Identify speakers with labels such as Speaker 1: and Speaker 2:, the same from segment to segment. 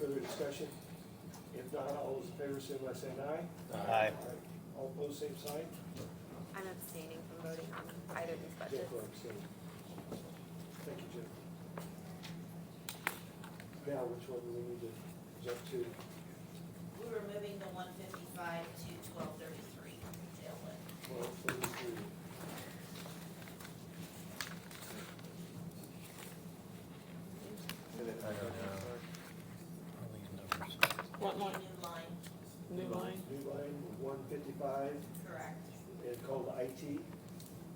Speaker 1: further discussion? If not, all those in favor, say by saying aye.
Speaker 2: Aye.
Speaker 1: All opposed, same sign.
Speaker 3: I'm abstaining from voting on either of these
Speaker 1: Jim
Speaker 3: budgets.
Speaker 1: Clark, same. Thank you, Jim. Now, which one do we need to jump to?
Speaker 4: We were moving the one fifty-five to twelve thirty-three, jail one.
Speaker 1: Well, please do.
Speaker 5: I don't know.
Speaker 6: What line?
Speaker 4: New line,
Speaker 6: New line?
Speaker 1: New line, one fifty-five,
Speaker 4: correct.
Speaker 1: and called IT, is
Speaker 5: And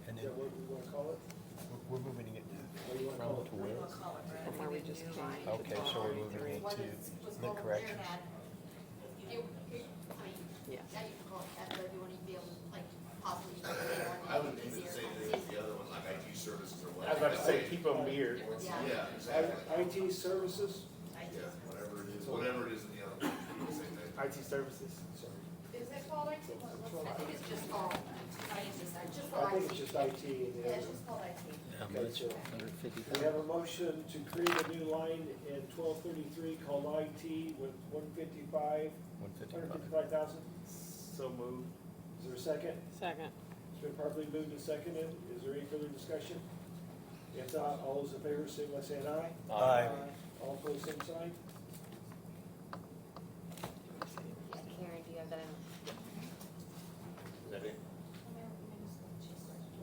Speaker 5: then
Speaker 1: that what we wanna call it?
Speaker 5: we're- we're moving it
Speaker 1: What do you wanna
Speaker 5: from
Speaker 1: call it?
Speaker 5: to
Speaker 4: What do you
Speaker 5: where?
Speaker 4: wanna call it, Brad?
Speaker 6: Or we just
Speaker 3: New
Speaker 6: change
Speaker 3: line.
Speaker 6: the
Speaker 5: Okay, so we're moving
Speaker 6: three?
Speaker 5: it
Speaker 4: What is, was
Speaker 5: to the
Speaker 4: called
Speaker 5: correction.
Speaker 4: CAD.
Speaker 7: It, it, I mean,
Speaker 6: Yeah.
Speaker 7: now you can call it that, but you want to be able to, like, possibly.
Speaker 8: I would even say that the other one, like IT services or
Speaker 2: I was
Speaker 8: whatever.
Speaker 2: about to say, keep them weird.
Speaker 7: Yeah.
Speaker 8: Yeah, exactly.
Speaker 1: IT services,
Speaker 4: I
Speaker 8: Yeah,
Speaker 4: just-
Speaker 8: whatever it is, whatever it is in the other one, keep the same thing.
Speaker 2: IT services.
Speaker 1: sorry,
Speaker 7: Is it called IT? I think it's just called, I use this, I just
Speaker 1: I
Speaker 7: called
Speaker 1: think it's
Speaker 7: IT.
Speaker 1: just IT and
Speaker 7: Yeah,
Speaker 1: the
Speaker 7: it's
Speaker 1: other.
Speaker 7: just called IT.
Speaker 5: How
Speaker 1: Okay,
Speaker 5: much?
Speaker 1: so
Speaker 5: Hundred fifty
Speaker 1: We have a motion to create a new line in twelve thirty-three called IT with one fifty-five,
Speaker 5: One
Speaker 1: hundred
Speaker 5: fifty-five.
Speaker 1: fifty-five thousand.
Speaker 2: So moved.
Speaker 1: Is there a second?
Speaker 6: Second.
Speaker 1: It's been properly moved and seconded. Is there any further discussion? If not, all those in favor, say by saying aye.
Speaker 5: Aye.
Speaker 1: All opposed, same sign.
Speaker 3: Yeah, Karen, do you have that in?
Speaker 2: Is that it?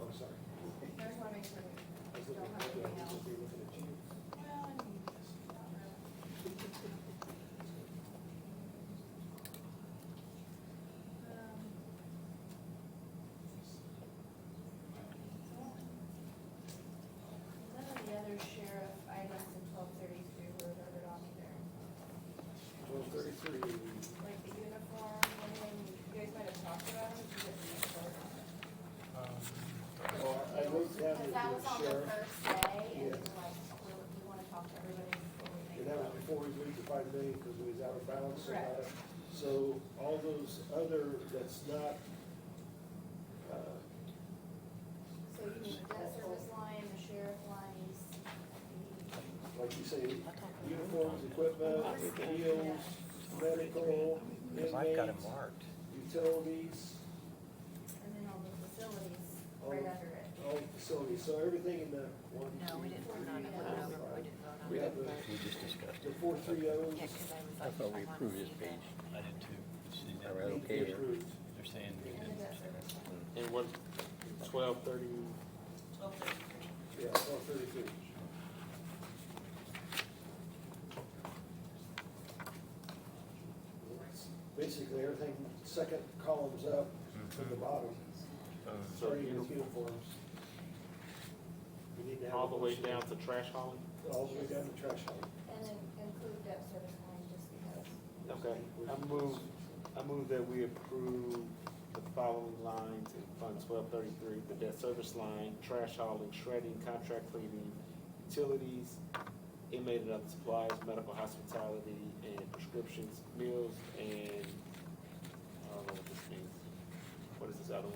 Speaker 1: I'm sorry.
Speaker 7: I just wanna make sure.
Speaker 1: I was looking at you. I was just looking at you.
Speaker 7: Um, None of the other sheriff items in twelve thirty-three were ordered on either,
Speaker 1: Twelve thirty-three.
Speaker 7: like the uniform, and then you guys might have talked about it, but you guys didn't vote on it.
Speaker 1: Oh, I- I wrote down
Speaker 7: Cause that was
Speaker 1: the
Speaker 7: on the
Speaker 1: sheriff.
Speaker 7: first day, and
Speaker 1: Yeah.
Speaker 7: we're like, we, we wanna talk to everybody before we make.
Speaker 1: And that was
Speaker 7: votes.
Speaker 1: before we moved to five million because we was out of balance. and
Speaker 7: Correct.
Speaker 1: out of- So all those other, that's not, uh,
Speaker 7: So you need the debt service line, the sheriff lines, the
Speaker 1: like you say, uniforms, equipment, meals, medical,
Speaker 5: Cause I've got it
Speaker 1: inmates,
Speaker 5: marked.
Speaker 1: utilities,
Speaker 7: And then all the facilities
Speaker 1: All
Speaker 7: right
Speaker 1: the-
Speaker 7: under it.
Speaker 1: all facilities, so everything in the one.
Speaker 3: No, we didn't vote on it,
Speaker 1: two,
Speaker 3: no,
Speaker 1: three,
Speaker 3: we didn't
Speaker 1: We
Speaker 3: vote on it.
Speaker 1: have the,
Speaker 5: We just discussed
Speaker 1: the
Speaker 5: it.
Speaker 1: four three oh O's.
Speaker 3: Yeah, because I was like.
Speaker 9: I thought we
Speaker 3: wanna
Speaker 9: approved this
Speaker 3: see the-
Speaker 9: page.
Speaker 5: I did too.
Speaker 9: All right,
Speaker 1: need to be
Speaker 9: okay.
Speaker 1: approved.
Speaker 5: They're saying we
Speaker 7: And the
Speaker 5: did.
Speaker 7: debt service line.
Speaker 2: And what, twelve thirty?
Speaker 4: Twelve thirty-three.
Speaker 1: Yeah, four thirty-three. Basically, everything, second column's up from the bottom,
Speaker 2: Uh,
Speaker 1: starting with uniforms. We need to have. a
Speaker 2: All the way
Speaker 1: motion.
Speaker 2: down to trash hauling?
Speaker 1: All the way down to trash hauling.
Speaker 7: And then include debt service line just because.
Speaker 2: Okay, I move, I move that we approve the following lines in Fund twelve thirty-three, the debt service line, trash hauling, shredding, contract cleaning, utilities, inmate and other supplies, medical hospitality, and prescriptions, meals, and, I don't know what this means. What is this other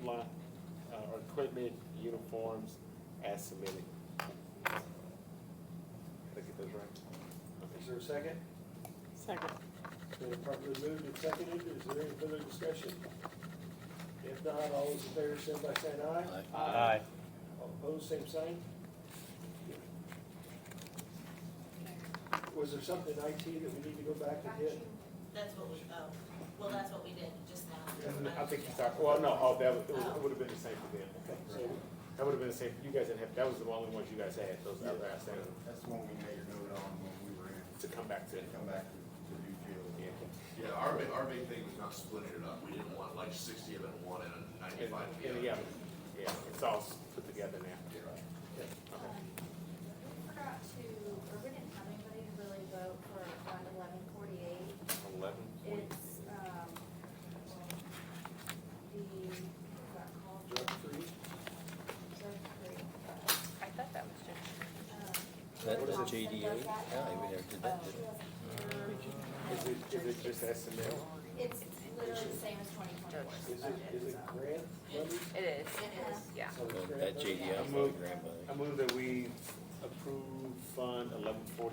Speaker 2: one? Line, uh, or equipment, uniforms, as submitted. Did I get those right? Okay.
Speaker 1: Is there a second?
Speaker 6: Second.
Speaker 1: Been properly moved and seconded, is there any further discussion? If not, all those in favor, say by saying aye.
Speaker 5: Aye.
Speaker 1: All opposed, same sign? Was there something in IT that we need to go back and get?
Speaker 4: That's what we, oh, well, that's what we did just now.
Speaker 2: I think you talked, well, no, oh, that was, it was- it would have been the same for them.
Speaker 1: Okay, so
Speaker 2: That would have been the same, you guys didn't have, that was the only ones you guys had, those other outstanding,
Speaker 10: That's the one we made a note on when we were in,
Speaker 2: to come back to.
Speaker 10: to come back to, to do jail.
Speaker 2: Yeah.
Speaker 8: Yeah, our big, our big thing was not splitting it up. We didn't want like sixty of it in one and
Speaker 2: And,
Speaker 8: ninety-five in
Speaker 2: and
Speaker 8: the
Speaker 2: yeah,
Speaker 8: other.
Speaker 2: yeah, it's all s- put together now.
Speaker 8: Yeah.
Speaker 7: Um, We forgot to, or we didn't have anybody really vote for fund eleven forty-eight.
Speaker 2: Eleven point,
Speaker 7: It's, um, the, what's that called?
Speaker 1: Drug free?
Speaker 7: Drug free.
Speaker 3: I thought that was just.
Speaker 9: That was
Speaker 7: a
Speaker 9: JDA? Yeah, we never did
Speaker 7: Oh.
Speaker 9: that, did we?
Speaker 2: is it, is it just estimate?
Speaker 7: It's literally the same as twenty twenty-four.
Speaker 1: Is it, is it grant money?
Speaker 3: It is,
Speaker 7: It is.
Speaker 3: yeah.
Speaker 1: So it's
Speaker 9: Well,
Speaker 1: grant
Speaker 9: That
Speaker 1: money?
Speaker 9: JDI was my grandmother.
Speaker 2: I move that we approve Fund eleven forty